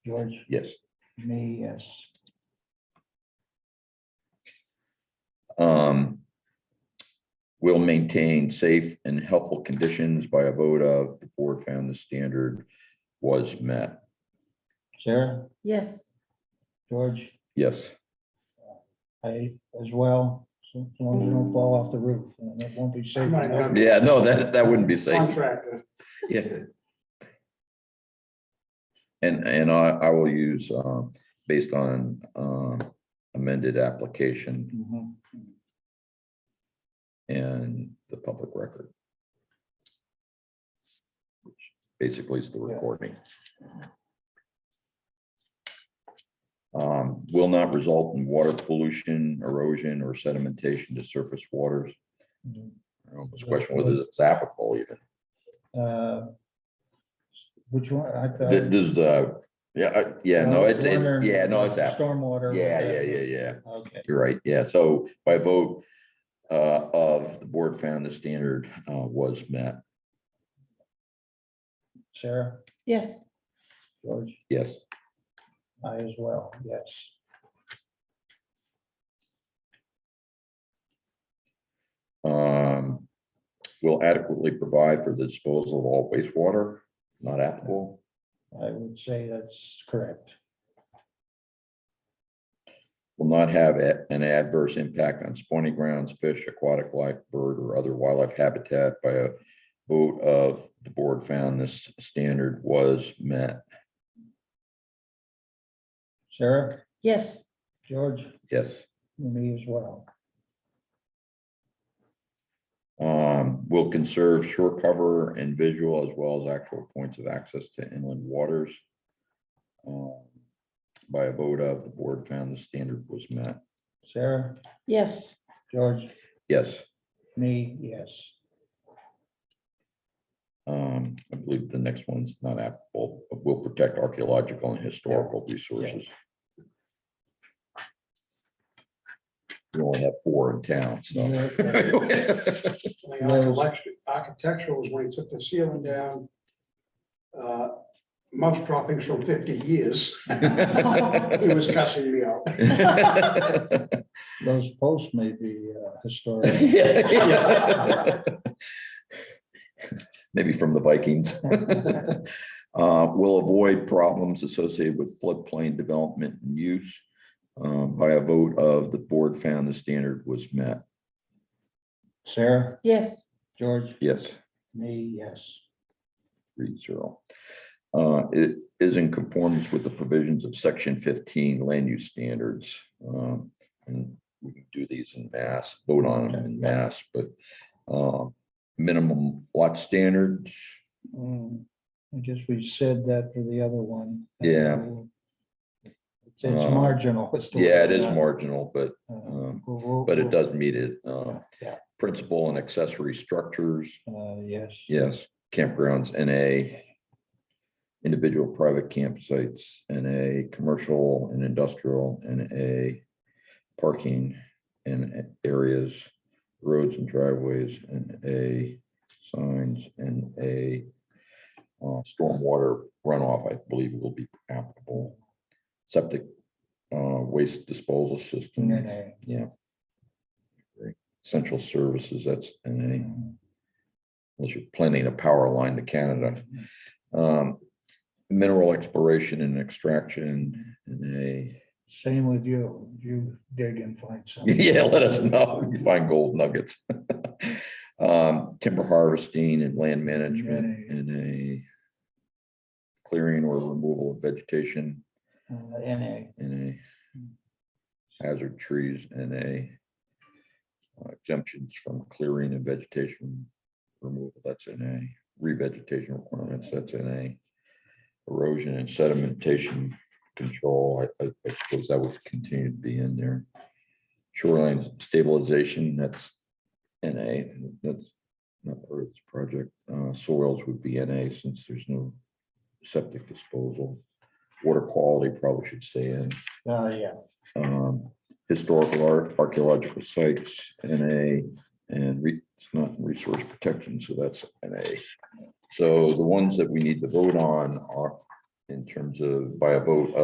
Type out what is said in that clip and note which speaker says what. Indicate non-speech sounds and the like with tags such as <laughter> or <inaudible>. Speaker 1: George,
Speaker 2: Yes.
Speaker 1: me, yes.
Speaker 2: Um. Will maintain safe and helpful conditions by a vote of the board found the standard was met.
Speaker 1: Sarah,
Speaker 3: yes,
Speaker 1: George,
Speaker 2: Yes,
Speaker 1: I as well, so as long as you don't fall off the roof, and it won't be safe.
Speaker 4: Right, right.
Speaker 2: yeah, no, that, that wouldn't be safe.
Speaker 4: Contractor.
Speaker 2: Yeah. And, and I, I will use, um, based on, um, amended application
Speaker 1: Mhm.
Speaker 2: and the public record. which Basically is the recording. Um, will not result in water pollution, erosion, or sedimentation to surface waters.
Speaker 1: Mm-hmm.
Speaker 2: I almost question whether it's applicable even.
Speaker 1: Uh, Which one? I thought-
Speaker 2: Th- This is the, yeah, I- yeah, no, it's, it's,
Speaker 1: Stormwater-
Speaker 2: yeah, no, it's app,
Speaker 1: Stormwater.
Speaker 2: Yeah, yeah, yeah, yeah.
Speaker 1: Okay,
Speaker 2: you're right, yeah, so by vote uh, of, the board found the standard uh, was met,
Speaker 1: Sarah,
Speaker 3: yes,
Speaker 1: George,
Speaker 2: yes.
Speaker 1: I as well, yes.
Speaker 2: Um, will adequately provide for the disposal of all wastewater, not applicable.
Speaker 1: I would say that's correct.
Speaker 2: Will not have a- an adverse impact on spawning grounds, fish, aquatic life, bird, or other wildlife habitat by a vote of, the board found this standard was met,
Speaker 1: Sarah,
Speaker 3: yes,
Speaker 1: George,
Speaker 2: yes.
Speaker 1: me as well.
Speaker 2: Um, will conserve shore cover and visual as well as actual points of access to inland waters. Um, By a vote of, the board found the standard was met.
Speaker 1: Sarah,
Speaker 3: yes,
Speaker 1: George,
Speaker 2: Yes,
Speaker 1: me, yes.
Speaker 2: um, I believe the next one's not applicable, but will protect archaeological and historical resources. We only have four in town, so.
Speaker 4: The architect- Architectural is when he took the ceiling down. uh, Mouse droppings from fifty years. <laughs> He was cussing me out.
Speaker 1: Those posts may be uh, historic.
Speaker 2: <laughs> Yeah. <laughs> Maybe from the Vikings. Uh, Will avoid problems associated with floodplain development and use. Um, By a vote of the board found the standard was met.
Speaker 1: Sarah,
Speaker 3: yes,
Speaker 1: George,
Speaker 2: Yes,
Speaker 1: me, yes.
Speaker 2: three zero. Uh, It is in conformance with the provisions of section fifteen land use standards. Um, And we can do these in mass, vote on them in mass, but uh, minimum lot standards,
Speaker 1: Um, I guess we said that for the other one.
Speaker 2: Yeah.
Speaker 1: It's it's
Speaker 2: Uh,
Speaker 1: marginal. it's the
Speaker 2: Yeah, it
Speaker 1: word,
Speaker 2: is
Speaker 1: uh,
Speaker 2: marginal, but,
Speaker 1: uh,
Speaker 2: um,
Speaker 1: we'll- we'll-
Speaker 2: but it
Speaker 1: we'll-
Speaker 2: does meet it. uh,
Speaker 1: Yeah.
Speaker 2: Principal and accessory structures,
Speaker 1: uh, Yes,
Speaker 2: yes, campgrounds, NA. Individual private campsites, NA, commercial and industrial, NA. Parking and areas, roads and driveways, NA, signs, NA. uh, Stormwater runoff, I believe will be applicable. Septic uh, waste disposal system.
Speaker 1: NA.
Speaker 2: Yeah. Central services, that's NA, unless you're planning a power line to Canada. Um, Mineral exploration and extraction, NA.
Speaker 1: same with you. You dig and find something.
Speaker 2: <laughs> Yeah, let us know if you find gold nuggets. <laughs> Um, Timber harvesting and land management,
Speaker 1: NA.
Speaker 2: NA. Clearing or removal of vegetation,
Speaker 1: Uh, NA,
Speaker 2: NA. Hazard trees, NA. Uh, Exemptions from clearing and vegetation removal, that's NA. Revegetation requirements, that's NA. Erosion and sedimentation control, I, I I suppose that would continue to be in there. Shoreline stabilization, that's NA, that's not part of this project. Uh, Soils would be NA since there's no septic disposal. Water quality probably should stay in
Speaker 1: uh, yeah,
Speaker 2: um, historical art, archaeological sites, NA, and re- it's not in resource protection, so that's NA. So the ones that we need to vote on are, in terms of by a vote